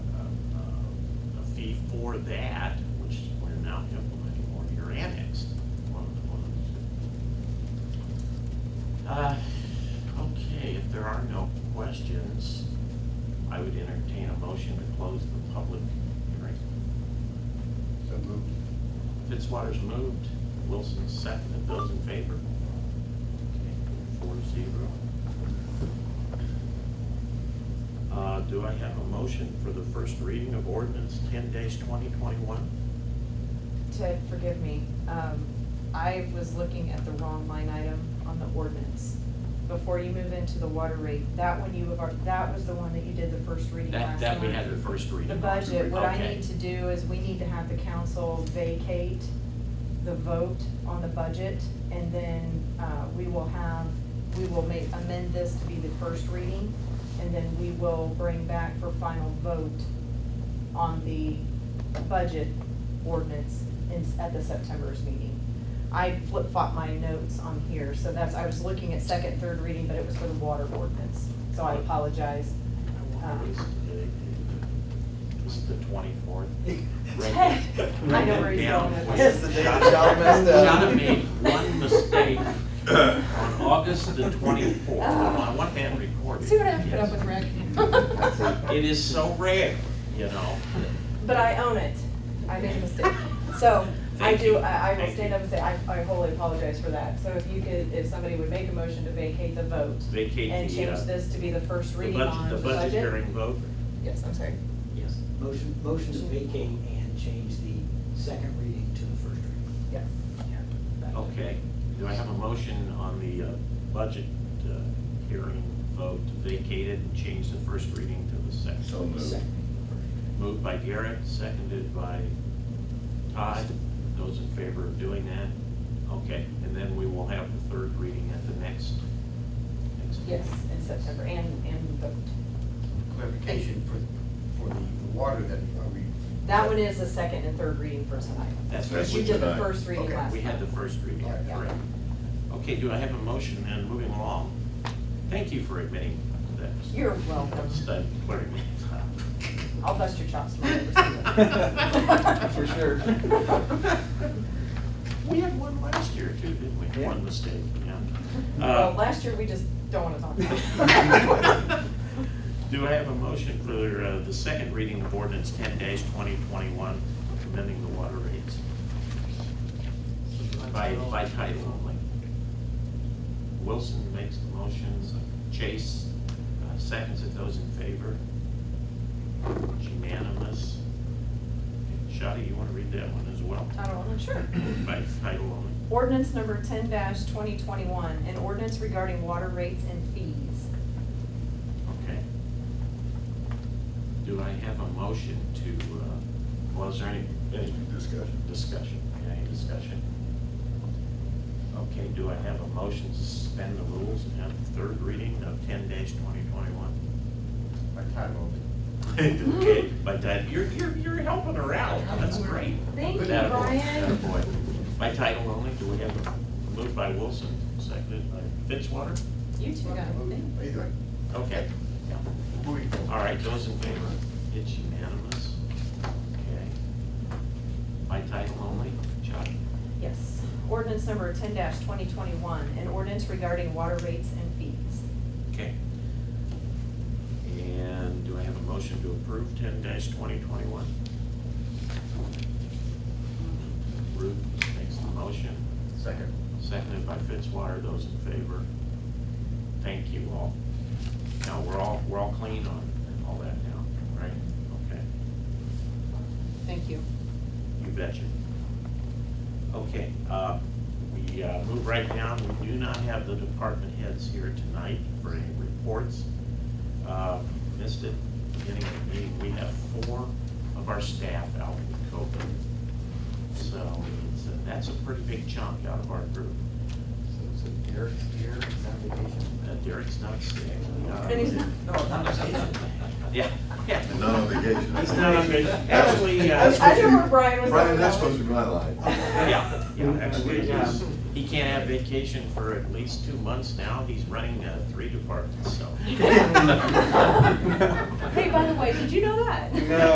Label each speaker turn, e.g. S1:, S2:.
S1: uh, for that, which we're now implementing, or you're annexed, one of the ones. Uh, Okay, if there are no questions, I would entertain a motion to close the public hearing.
S2: So moved.
S1: Fitzwater's moved, Wilson seconded, those in favor? Okay, Four to zero. Uh, do I have a motion for the first reading of ordinance ten days twenty twenty-one?
S3: Ted, forgive me, um, I was looking at the wrong line item on the ordinance. Before you move into the water rate, that one you have, al- that was the one that you did the first reading
S1: That,
S3: last
S1: that we
S3: time.
S1: had the first reading.
S3: The budget, what I
S1: Okay.
S3: need to do is we need to have the council vacate the vote on the budget, and then, uh, we will have, we will make, amend this to be the first reading, and then we will bring back for final vote on the budget ordinance in, at the September's meeting. I flip-flop my notes on here, so that's, I was looking at second, third reading, but it was for the water ordinance, so I apologize.
S1: What
S3: uh,
S1: is today? This is the twenty-fourth.
S3: Ted, I know where he's going with this.
S2: It's the day that John messed up.
S1: John made one mistake on August the twenty-fourth. I want that recorded.
S3: Ah. See what I have to put up with,
S1: Yes.
S3: Rick?
S1: It is so rare, you know.
S3: But I own it. I made a mistake. So I
S1: Thank
S3: do,
S1: you.
S3: I, I will
S1: Thank
S3: stand
S1: you.
S3: up and say, I, I wholly apologize for that. So if you could, if somebody would make a motion to vacate the vote
S1: Vacate
S3: and
S1: the,
S3: change
S1: uh,
S3: this to be the first
S1: The
S3: reading on
S1: budget,
S3: the
S1: the budget
S3: budget.
S1: hearing vote.
S3: Yes, I'm sorry.
S1: Yes.
S4: Motion, motion to vacate and change the second reading to the first reading.
S3: Yes.
S4: Back to-
S1: Okay, do I have a motion on the uh, budget uh, hearing vote to vacate it and change the first reading to the second?
S2: So moved.
S4: Second.
S1: Moved by Garrett, seconded by Todd. Those in favor of doing that? Okay, and then we will have the third reading at the next, next.
S3: Yes, in September and, and vote.
S2: Clarification for, for the water that are we?
S3: That one is the second and third reading for tonight.
S1: That's
S3: But
S1: right.
S3: You
S1: we-
S3: did the
S5: tonight.
S3: first reading
S2: Okay,
S3: last
S1: We had the
S3: time.
S1: first reading,
S2: Yeah.
S1: correct. Okay, do I have a motion then, moving along? Thank you for admitting that.
S3: You're welcome.
S1: Study clearing me up.
S3: I'll bust your chops tomorrow.
S4: For sure. Uh,
S1: We had one last year too, didn't we?
S4: Yeah.
S1: One mistake, yeah.
S3: Well,
S1: Uh,
S3: last year, we just don't want to talk about it.
S1: Do I have a motion for uh, the second reading of ordinance ten days twenty twenty-one, amending the water rates by, by title only? Wilson makes the motions, Chase uh, seconds it, those in favor. It's unanimous. Shadi, you want to read that one as well?
S3: I don't know, sure.
S1: By title only.
S3: Ordinance number ten twenty twenty-one, an ordinance regarding water rates and fees.
S1: Okay. Do I have a motion to, uh, well, is there any, any
S5: Discussion.
S1: discussion, any discussion? Okay, do I have a motion to suspend the rules and have the third reading of ten dash twenty twenty-one?
S2: By title only.
S1: Okay, by title, you're, you're, you're helping her out, that's great.
S3: Thank you,
S1: Attaboy,
S3: Brian.
S1: attaboy. By title only, do we have a, moved by Wilson, seconded by Fitzwater?
S3: You two got it.
S2: Either way.
S1: Okay, yeah.
S2: Moving forward.
S1: All right, those in favor? It's unanimous. Okay. By title only, Chuck?
S3: Yes. Ordinance number ten twenty twenty-one, an ordinance regarding water rates and fees.
S1: Okay. And do I have a motion to approve ten twenty twenty-one? Ruth makes the motion,
S2: Second.
S1: seconded by Fitzwater, those in favor. Thank you all. Now, we're all, we're all clean on all that now, right? Okay.
S3: Thank you.
S1: You betcha. Okay, uh, we uh, move right down. We do not have the department heads here tonight for any reports. Uh, Missed it, beginning of the meeting, we have four of our staff out with COVID. So it's a- that's a pretty big chunk out of our group.
S2: So Derek's here, he's on vacation.
S1: Uh, Derek's not sick. uh,
S3: And he's not-
S4: No, I'm not
S1: Yeah, yeah.
S5: He's not on vacation.
S1: He's not on vacation. Actually, uh,
S5: That's
S3: I
S5: supposed
S3: knew
S5: to
S3: where
S5: be-
S3: Brian was going
S5: Brian, that's
S3: with
S5: supposed to be my line.
S1: Yeah, yeah, actually,
S4: Yeah.
S1: he's- he can't have vacation for at least two months now, he's running uh, three departments, so.
S3: Hey, by the way, did you know that?
S4: No.